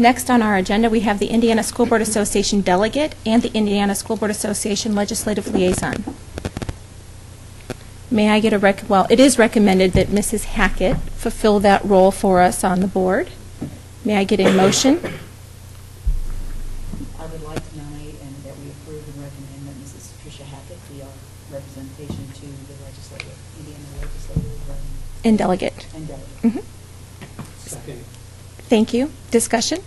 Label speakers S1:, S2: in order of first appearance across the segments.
S1: Next on our agenda, we have the Indiana School Board Association Delegate and the Indiana School Board Association Legislative Liaison. May I get a rec, well, it is recommended that Mrs. Hackett fulfill that role for us on the board. May I get a motion?
S2: I would like to nominate and that we approve and recommend that Mrs. Tricia Hackett be our representation to the legislative, Indiana legislative um,
S1: And delegate.
S2: and delegate.
S1: Mhm.
S3: Second.
S1: Thank you. Discussion?
S4: Can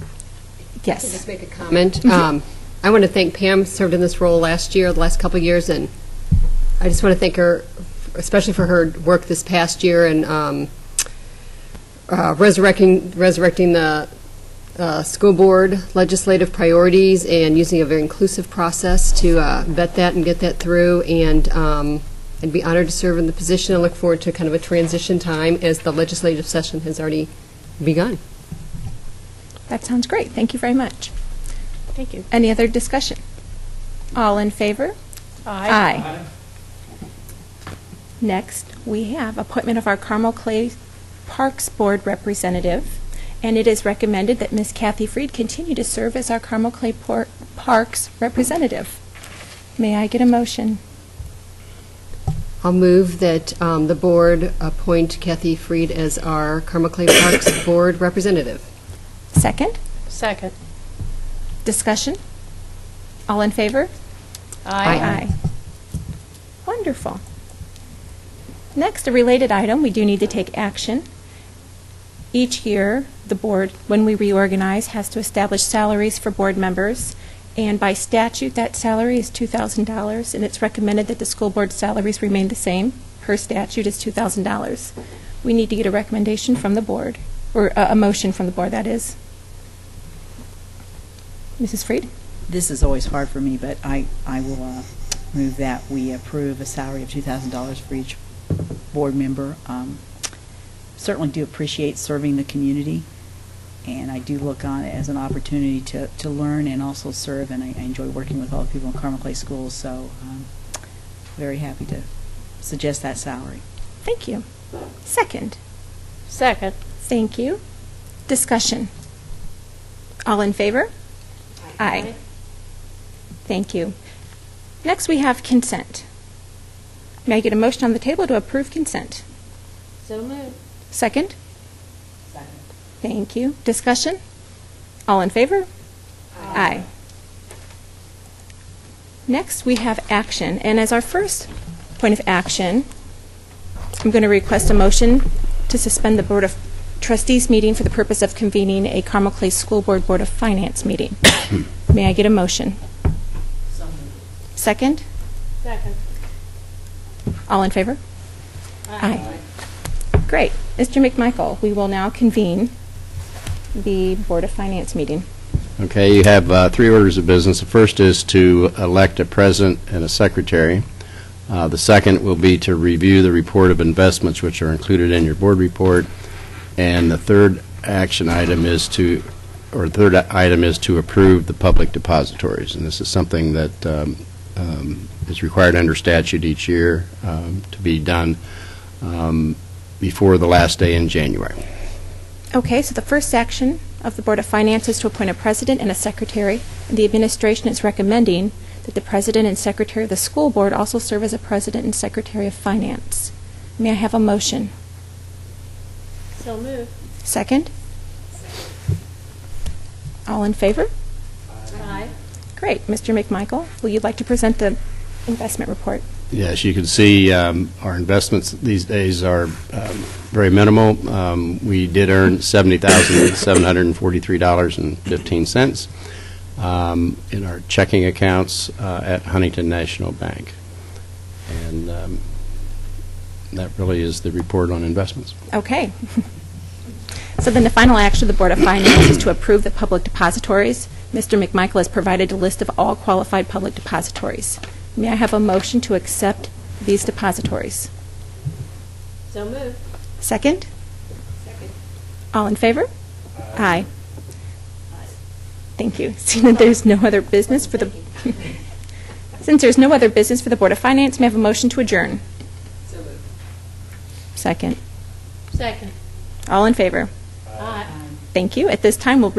S4: I
S1: Yes.
S4: just make a comment? Um, I want to thank Pam, served in this role last year, the last couple of years, and I just want to thank her, especially for her work this past year and um, uh, resurrecting, resurrecting the uh, school board legislative priorities and using a very inclusive process to uh, vet that and get that through, and um, I'd be honored to serve in the position and look forward to kind of a transition time as the legislative session has already begun.
S1: That sounds great. Thank you very much.
S5: Thank you.
S1: Any other discussion? All in favor? Aye. Next, we have appointment of our Carmel Clay Parks Board Representative, and it is recommended that Ms. Kathy Freed continue to serve as our Carmel Clay Por- Parks Representative. May I get a motion?
S4: I'll move that um, the board appoint Kathy Freed as our Carmel Clay Parks Board Representative.
S1: Second?
S5: Second.
S1: Discussion? All in favor?
S4: Aye.
S1: Wonderful. Next, a related item, we do need to take action. Each year, the board, when we reorganize, has to establish salaries for board members, and by statute, that salary is $2,000, and it's recommended that the school board salaries remain the same. Per statute is $2,000. We need to get a recommendation from the board, or a, a motion from the board, that is. Mrs. Freed?
S2: This is always hard for me, but I, I will uh, move that we approve a salary of $2,000 for each board member. Um, Certainly do appreciate serving the community, and I do look on it as an opportunity to, to learn and also serve, and I I enjoy working with all the people in Carmel Clay Schools, so um, very happy to suggest that salary.
S1: Thank you. Second?
S5: Second.
S1: Thank you. Discussion. All in favor? Aye. Thank you. Next, we have consent. May I get a motion on the table to approve consent?
S5: So moved.
S1: Second? Second. Thank you. Discussion? All in favor? Aye. Next, we have action, and as our first point of action, I'm going to request a motion to suspend the Board of Trustees meeting for the purpose of convening a Carmel Clay School Board Board of Finance meeting. May I get a motion? Second?
S5: Second.
S1: All in favor? Aye. Great. Mr. McMichael, we will now convene the Board of Finance meeting.
S6: Okay, you have uh, three orders of business. The first is to elect a president and a secretary. Uh, The second will be to review the report of investments which are included in your board report. And the third action item is to, or third item is to approve the public depositories. And this is something that um, um, is required under statute each year um, to be done um, before the last day in January.
S1: Okay, so the first action of the Board of Finance is to appoint a president and a secretary. The administration is recommending that the president and secretary of the school board also serve as a president and secretary of finance. May I have a motion?
S5: So moved.
S1: Second? All in favor?
S5: Aye.
S1: Great. Mr. McMichael, will you like to present the investment report?
S6: Yes, you can see um, our investments these days are um, very minimal. Um, We did earn $70,743.15 um, in our checking accounts uh, at Huntington National Bank. And um, that really is the report on investments.
S1: Okay. So then the final action of the Board of Finance is to approve the public depositories. Mr. McMichael has provided a list of all qualified public depositories. May I have a motion to accept these depositories?
S5: So moved.
S1: Second? Second. All in favor? Aye. Thank you. Seeing that there's no other business for the, since there's no other business for the Board of Finance, may I have a motion to adjourn? Second.
S5: Second.
S1: All in favor?
S5: Aye.
S1: Thank you. At this time, we'll